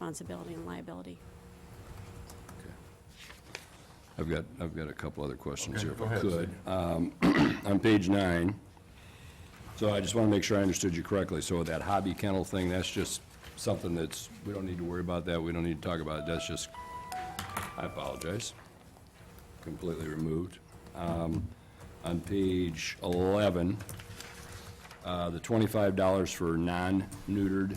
responsibility and liability. I've got, I've got a couple other questions here, if go I ahead, could. Um, On page nine, so I just want to make sure I understood you correctly. So that hobby kennel thing, that's just something that's, we don't need to worry about that, we don't need to talk about it, that's just, I apologize, completely removed. Um, On page 11, uh, the $25 for non-neutered,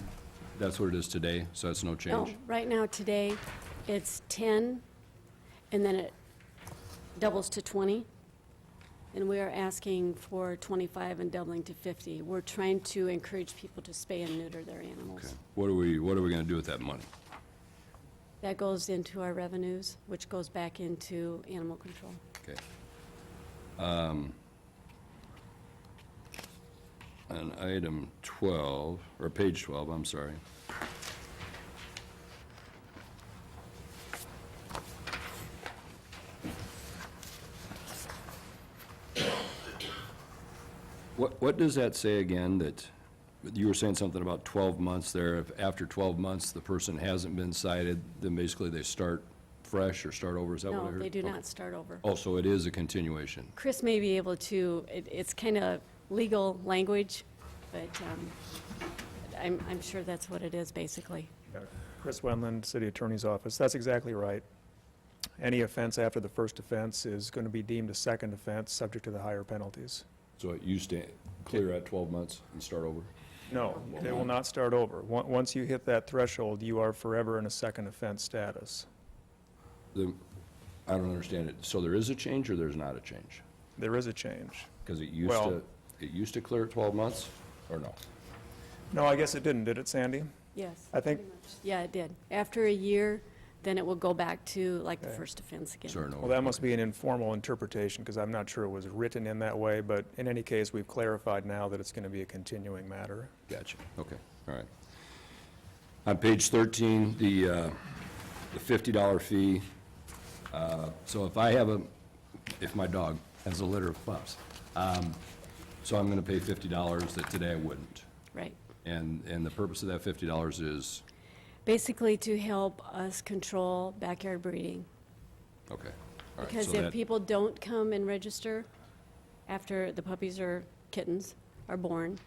that's what it is today, so that's no No, change? right now, today, it's 10, and then it doubles to 20, and we are asking for 25 and doubling to 50. We're trying to encourage people to spay and neuter their Okay. animals. What are we, what are we going to do with that money? That goes into our revenues, which goes back into animal control. Okay. Um, On item 12, or page 12, I'm sorry. What, what does that say again, that, you were saying something about 12 months there, if after 12 months the person hasn't been cited, then basically they start fresh or start over, is that what I No, heard? they do Okay. not start over. Oh, so it is a continuation. Chris may be able to, it, it's kind of legal language, but um, I'm, I'm sure that's what it is, basically. Uh, Chris Wendland, City Attorney's Office. That's exactly right. Any offense after the first offense is going to be deemed a second offense, subject to the higher penalties. So you stay clear at 12 months and start over? No, they will not start over. Once once you hit that threshold, you are forever in a second offense status. The- I don't understand it. So there is a change or there's not a change? There is a change. Because it used Well- to, it used to clear at 12 months, or no? No, I guess it didn't, did it, Sandy? Yes. I think, Yeah, it did. After a year, then it will go back to like the Okay. first offense again. Sorry, no. well, that must be an informal interpretation, because I'm not sure it was written in that way, but in any case, we've clarified now that it's going to be a continuing matter. Gotcha, okay, all right. On page 13, the uh, the $50 fee, uh, so if I have a, if my dog has a litter of pups, um, so I'm going to pay $50 that today I wouldn't. Right. And, and the purpose of that fifty dollars is, Basically to help us control backyard breeding. okay. all right, so Because if that- people don't come and register after the puppies or kittens are born,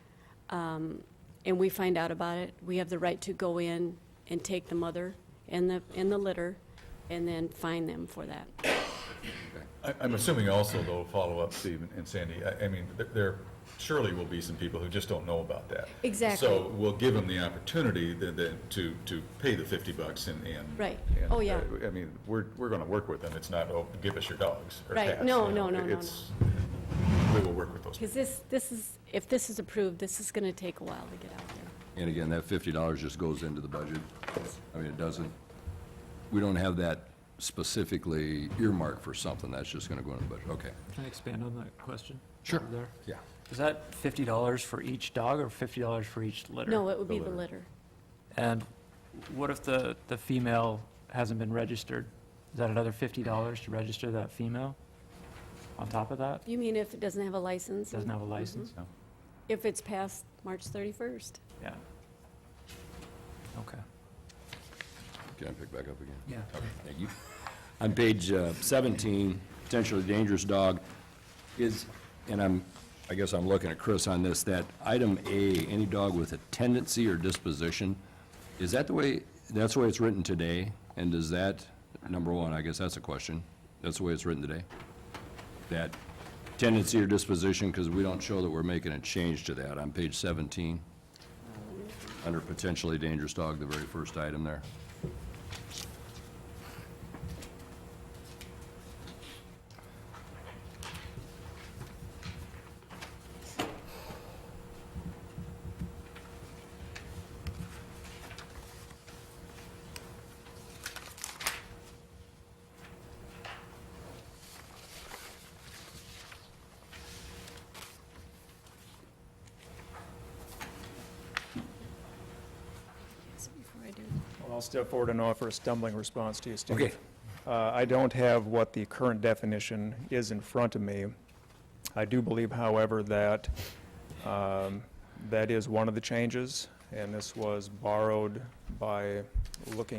um, and we find out about it, we have the right to go in and take the mother and the, and the litter, and then fine them for that. I- I'm assuming also, though, follow up, Steve and Sandy, I- I mean, th- there surely will be some people who just don't know about that. Exactly. So we'll give them the opportunity th- then to, to pay the 50 bucks and, and. Right. and, Oh, yeah. uh, I mean, we're, we're going to work with them. It's not, oh, give us your dogs or Right. cats. No, you no, know. no, no, no. It's, we will work with those. Because this, this is, if this is approved, this is gonna take a while to get out there. And again, that fifty dollars just goes into the budget. I mean, it doesn't, we don't have that specifically earmarked for something, that's just gonna go in the budget, okay. Can I expand on that question? Sure. over there? Yeah. Is that fifty dollars for each dog or fifty dollars for each litter? No, it would be the litter. And what if the, the female hasn't been registered? Is that another fifty dollars to register that female on top of that? You mean if it doesn't have a license? Doesn't have a license? If it's past March 31st? Yeah. Okay. Can I pick back up again? Yeah. Thank you. On page uh, 17, potentially dangerous dog, is, and I'm, I guess I'm looking at Chris on this, that item A, any dog with a tendency or disposition, is that the way, that's the way it's written today? And does that, number one, I guess that's a question, that's the way it's written today? That tendency or disposition, because we don't show that we're making a change to that on page 17, under potentially dangerous dog, the very first item there. Well, I'll step forward and offer a stumbling response to you, Steve. Okay. Uh, I don't have what the current definition is in front of me. I do believe, however, that um, that is one of the changes, and this was borrowed by looking